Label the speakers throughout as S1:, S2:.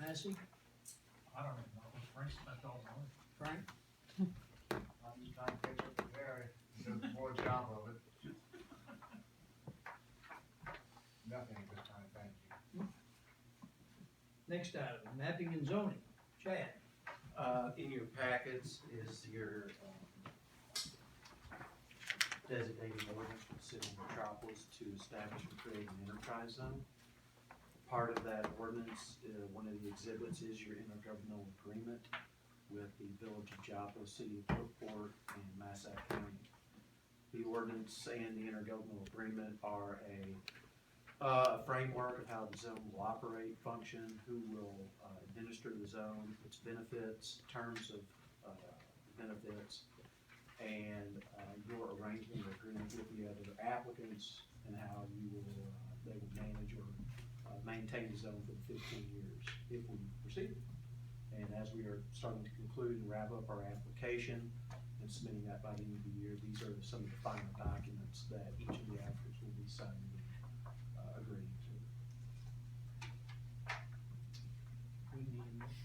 S1: Massey,
S2: I don't even know, Frank spent all the money.
S1: Frank,
S3: I'm just trying to catch up to Mary, she does a poor job of it. Nothing at this time, thank you.
S1: next item, mapping and zoning, Chad.
S4: Uh, in your packets is your, um, designated ordinance for the city of metropolis to establish and create an enterprise zone. Part of that ordinance, uh, one of the exhibits is your intergovernmental agreement with the village of Joppa, city of Brookport, and Massac County. The ordinance and the intergovernmental agreement are a uh, a framework of how the zone will operate, function, who will uh, administer the zone, its benefits, terms of uh, benefits, and uh, your arrangement or agreement with the other applicants and how you will, uh, they will manage or uh, maintain the zone for the fifteen years if we proceed. And as we are starting to conclude and wrap up our application and submitting that by the end of the year, these are some of the final documents that each of the applicants will be signing and uh, agreeing to.
S1: We need a motion.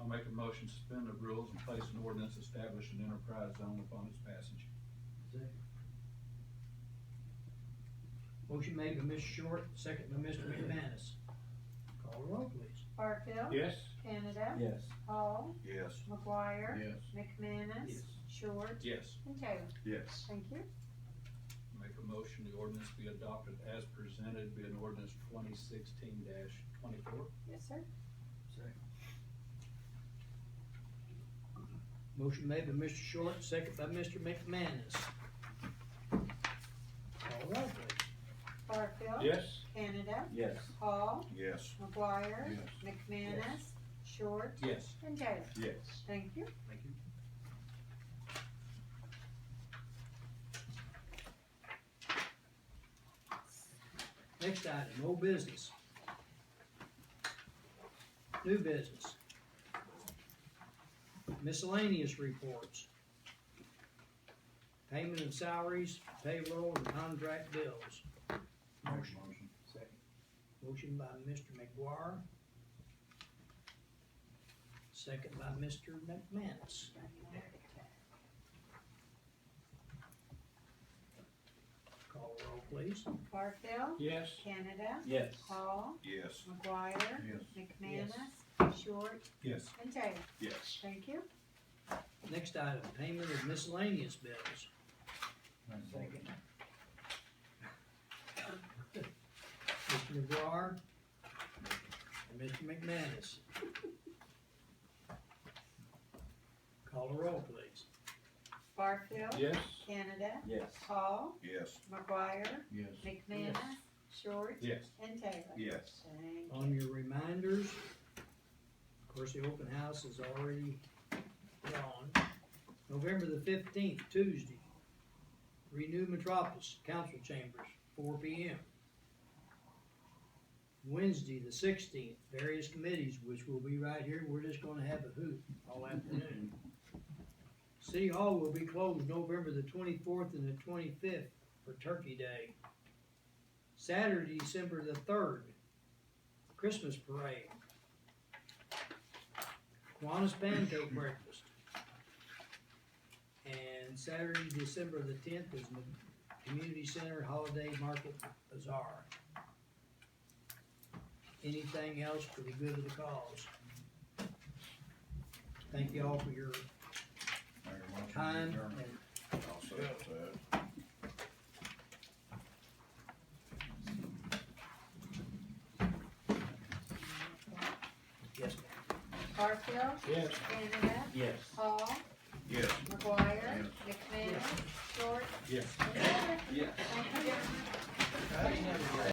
S2: I'll make a motion, to suspend the rules and place an ordinance establishing enterprise zone upon its passage.
S1: Second. Motion made by Mr. Short, second by Mr. McManus. Call the roll, please.
S5: Barfield.
S2: Yes?
S5: Canada.
S2: Yes.
S5: Hall.
S2: Yes.
S5: McGuire.
S2: Yes.
S5: McManus.
S4: Yes.
S5: Short.
S2: Yes.
S5: And Taylor.
S2: Yes.
S5: Thank you.
S2: Make a motion, the ordinance be adopted as presented, be an ordinance twenty sixteen twenty-four.
S5: Yes, sir.
S1: Motion made by Mr. Short, second by Mr. McManus. Call the roll, please.
S5: Barfield.
S2: Yes.
S5: Canada.
S2: Yes.
S5: Hall.
S2: Yes.
S5: McGuire. McManus. Short.
S2: Yes.
S5: And Taylor.
S2: Yes.
S5: Thank you.
S4: Thank you.
S1: Next item, old business. New business. Miscellaneous reports. Payment of salaries, payroll, and contract bills. Motion. Motion by Mr. McGuire. Second by Mr. McManus. Call roll, please.
S5: Barfield.
S2: Yes.
S5: Canada.
S2: Yes.
S5: Hall.
S2: Yes.
S5: McGuire.
S2: Yes.
S5: McManus. Short.
S2: Yes.
S5: And Taylor.
S2: Yes.
S5: Thank you.
S1: Next item, payment of miscellaneous bills. Mr. McGuire and Mr. McManus. Call the roll, please.
S5: Barfield.
S2: Yes.
S5: Canada.
S2: Yes.
S5: Hall.
S2: Yes.
S5: McGuire.
S2: Yes.
S5: McManus. Short.
S2: Yes.
S5: And Taylor.
S2: Yes.
S5: Thank you.
S1: On your reminders, of course, the open house is already gone. November the fifteenth, Tuesday, Renew Metropolis, council chambers, four P M. Wednesday, the sixteenth, various committees, which will be right here, we're just gonna have a hoot all afternoon. City Hall will be closed November the twenty-fourth and the twenty-fifth for Turkey Day. Saturday, December the third, Christmas parade. Kiwanis Banjo breakfast. And Saturday, December the tenth is the Community Center Holiday Market Bazaar. Anything else for the good of the cause? Thank you all for your time and yes, ma'am.
S5: Barfield.
S2: Yes.
S5: Canada.
S4: Yes.
S5: Hall.
S2: Yes.
S5: McGuire. McManus. Short.
S2: Yes.
S5: And Taylor.
S4: Yes.
S5: Thank you.